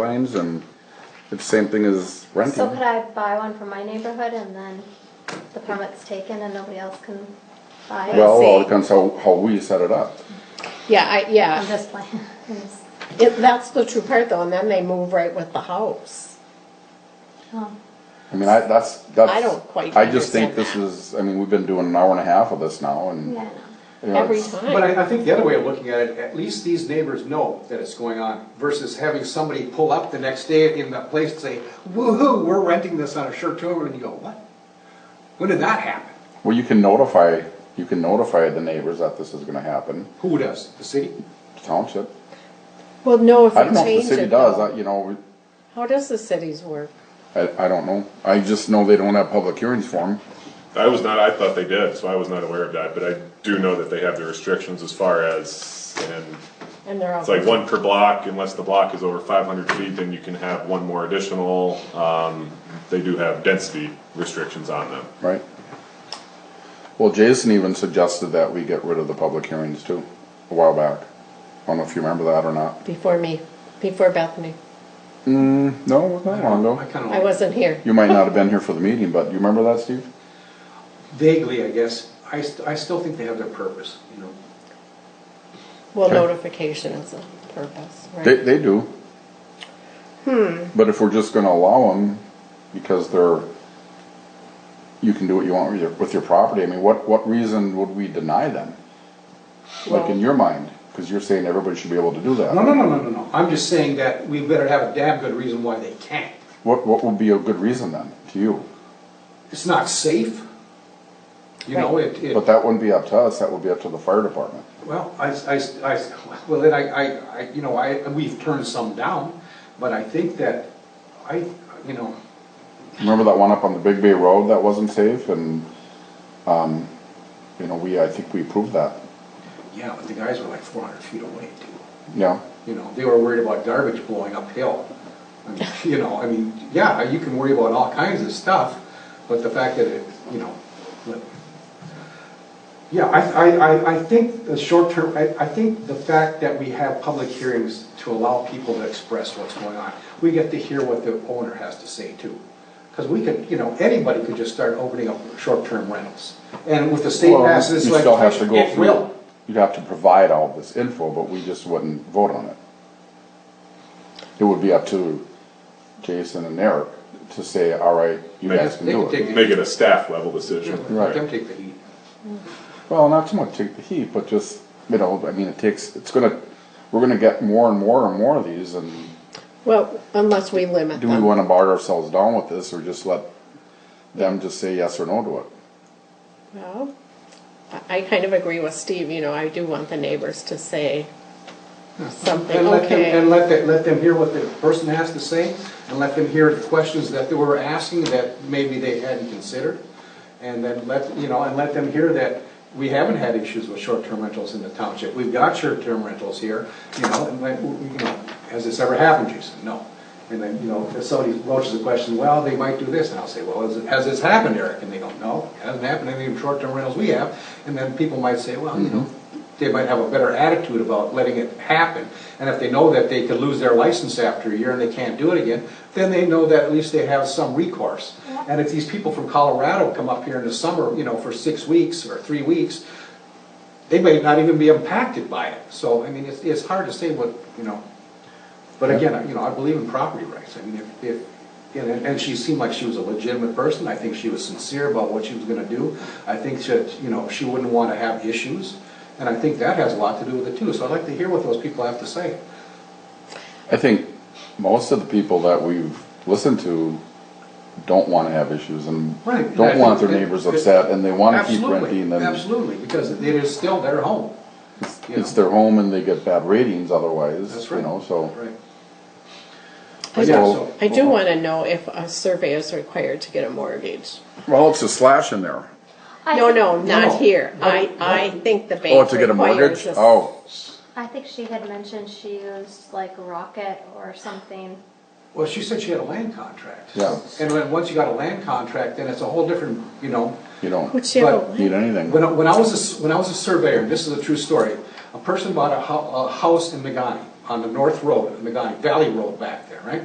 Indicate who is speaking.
Speaker 1: lines and it's the same thing as renting.
Speaker 2: So could I buy one from my neighborhood and then the permit's taken and nobody else can buy it?
Speaker 1: Well, it all
Speaker 3: see.
Speaker 1: depends how, how we set it up.
Speaker 3: Yeah, I,
Speaker 2: I'm
Speaker 3: yeah,
Speaker 2: just playing. I'm just-
Speaker 3: it, that's the true part though, and then they move right with the house.
Speaker 2: oh.
Speaker 1: I mean, I, that's, that's.
Speaker 3: I don't quite
Speaker 1: I just think this
Speaker 3: understand
Speaker 1: is, I mean, we've been doing an hour and a half of this now and.
Speaker 2: Yeah, I know.
Speaker 1: you know,
Speaker 3: Every
Speaker 1: it's-
Speaker 3: time.
Speaker 4: But I, I think the other way of looking at it, at least these neighbors know that it's going on versus having somebody pull up the next day in that place and say, woo-hoo, we're renting this on a short term, and you go, what? When did that happen?
Speaker 1: Well, you can notify, you can notify the neighbors that this is gonna happen,
Speaker 4: Who does? The city?
Speaker 1: township.
Speaker 3: Well, no, if
Speaker 1: I don't
Speaker 3: we
Speaker 1: know if
Speaker 3: change
Speaker 1: the city
Speaker 3: it
Speaker 1: does,
Speaker 3: though.
Speaker 1: I, you know,
Speaker 3: How does the cities work?
Speaker 1: I, I don't know. I just know they don't have public hearings for them.
Speaker 5: I was not, I thought they did, so I was not aware of that, but I do know that they have the restrictions as far as, and
Speaker 3: And they're all.
Speaker 5: it's like one per block, unless the block is over five hundred feet, then you can have one more additional. Um, they do have density restrictions on them.
Speaker 1: Right. Well, Jason even suggested that we get rid of the public hearings too, a while back. I don't know if you remember that or not.
Speaker 3: Before me, before Bethany.
Speaker 1: No, it was not long
Speaker 4: I
Speaker 1: ago.
Speaker 4: kind
Speaker 3: I
Speaker 4: of
Speaker 3: wasn't here.
Speaker 1: You might not have been here for the meeting, but you remember that, Steve?
Speaker 4: vaguely, I guess, I, st- I still think they have their purpose, you know?
Speaker 3: Well,
Speaker 1: Okay.
Speaker 3: notification is a purpose,
Speaker 1: They,
Speaker 3: right?
Speaker 1: they do. Hmm. But if we're just gonna allow them, because they're, you can do what you want with your, with your property, I mean, what, what reason would we deny them? Like in
Speaker 3: Well-
Speaker 1: your mind, cause you're saying everybody should be able to do
Speaker 4: No,
Speaker 1: that.
Speaker 4: no, no, no, no, no, I'm just saying that we better have a damn good reason why they can't.
Speaker 1: What, what would be a good reason then, to you?
Speaker 4: It's not safe. You know,
Speaker 3: Right.
Speaker 4: it, it.
Speaker 1: But that wouldn't be up to us, that would be up to the fire department.
Speaker 4: Well, I, I, I, well, then I, I, I, you know, I, we've turned some down, but I think that, I, you know,
Speaker 1: Remember that one up on the Big Bay Road that wasn't safe and, um, you know, we, I think we approved that,
Speaker 4: yeah, but the guys were like four hundred feet away too.
Speaker 1: yeah.
Speaker 4: You know, they were worried about garbage blowing uphill. I mean, You know, I mean, yeah, you can worry about all kinds of stuff, but the fact that it, you know, but- yeah, I, I, I, I think the short term, I, I think the fact that we have public hearings to allow people to express what's going on, we get to hear what the owner has to say too. Because we could, you know, anybody could just start opening up short-term rentals. And with the state
Speaker 1: Well,
Speaker 4: passes
Speaker 1: You still have to
Speaker 4: legislation,
Speaker 1: go
Speaker 4: it
Speaker 1: through,
Speaker 4: will.
Speaker 1: you'd have to provide all this info, but we just wouldn't vote on it. It would be up to Jason and Eric to say, all right, you
Speaker 5: They
Speaker 1: guys
Speaker 5: just-
Speaker 1: can
Speaker 4: they
Speaker 1: do
Speaker 4: can
Speaker 1: it.
Speaker 4: take
Speaker 5: Make it a staff level decision.
Speaker 4: Let them take the heat.
Speaker 1: Well, not so much take the heat, but just, you know, I mean, it takes, it's gonna, we're gonna get more and more and more of these and
Speaker 3: Well, unless we limit
Speaker 1: do we
Speaker 3: them.
Speaker 1: wanna bar ourselves down with this or just let them just say yes or no to it?
Speaker 3: Well, I, I kind of agree with Steve, you know, I do want the neighbors to say something,
Speaker 4: And let them, and
Speaker 3: okay.
Speaker 4: let them, let them hear what the person has to say, and let them hear the questions that they were asking that maybe they hadn't considered. And then let, you know, and let them hear that we haven't had issues with short-term rentals in the township. We've got short-term rentals here, you know, and like, you know, has this ever happened, Jason? No. And then, you know, if somebody broaches the question, well, they might do this, and I'll say, well, has, it- has this happened, Eric? And they go, no, it hasn't happened, in any of the short-term rentals we have. And then people might say, well, you know, they might have a better attitude about letting it happen. And if they know that they could lose their license after a year and they can't do it again, then they know that at least they have some recourse. And if these people from Colorado come up here in the summer, you know, for six weeks or three weeks, they may not even be impacted by it. So, I mean, it's, it's hard to say what, you know, but again, you know, I believe in property rights. I mean, if, if, and, and she seemed like she was a legitimate person. I think she was sincere about what she was gonna do. I think that, you know, she wouldn't wanna have issues. And I think that has a lot to do with it too. So I'd like to hear what those people have to say.
Speaker 1: I think most of the people that we've listened to don't wanna have issues and
Speaker 4: Right, and I
Speaker 1: don't want their
Speaker 4: think that-
Speaker 1: neighbors upset and they wanna keep
Speaker 4: Absolutely,
Speaker 1: renting and
Speaker 4: Absolutely, because it is still their home. you
Speaker 1: it's
Speaker 4: know.
Speaker 1: their home and they get bad ratings otherwise,
Speaker 4: That's
Speaker 1: you
Speaker 4: right.
Speaker 1: know, so.
Speaker 4: Right.
Speaker 3: I
Speaker 4: Yeah,
Speaker 3: do-
Speaker 4: so-
Speaker 3: I do want to know if a survey is required to get a mortgage.
Speaker 1: Well, it's a slash in there.
Speaker 2: I
Speaker 3: No,
Speaker 2: think-
Speaker 3: no, not
Speaker 4: No,
Speaker 3: here.
Speaker 4: no,
Speaker 3: I,
Speaker 4: no.
Speaker 3: I think the bank
Speaker 1: Oh, to get a
Speaker 3: requires
Speaker 1: mortgage?
Speaker 3: us-
Speaker 1: Oh,
Speaker 2: I think she had mentioned she used like Rocket or something.
Speaker 4: Well, she said she had a land contract.
Speaker 1: Yeah.
Speaker 4: And then, once you got a land contract, then it's a whole different, you know,
Speaker 1: you don't
Speaker 3: Which you
Speaker 4: But-
Speaker 3: don't-
Speaker 1: need anything.
Speaker 4: When, I- when I was, a s- when I was a surveyor, and this is a true story, a person bought a hou- a house in Nagani, on the North Road, on the Valley Road back there, right?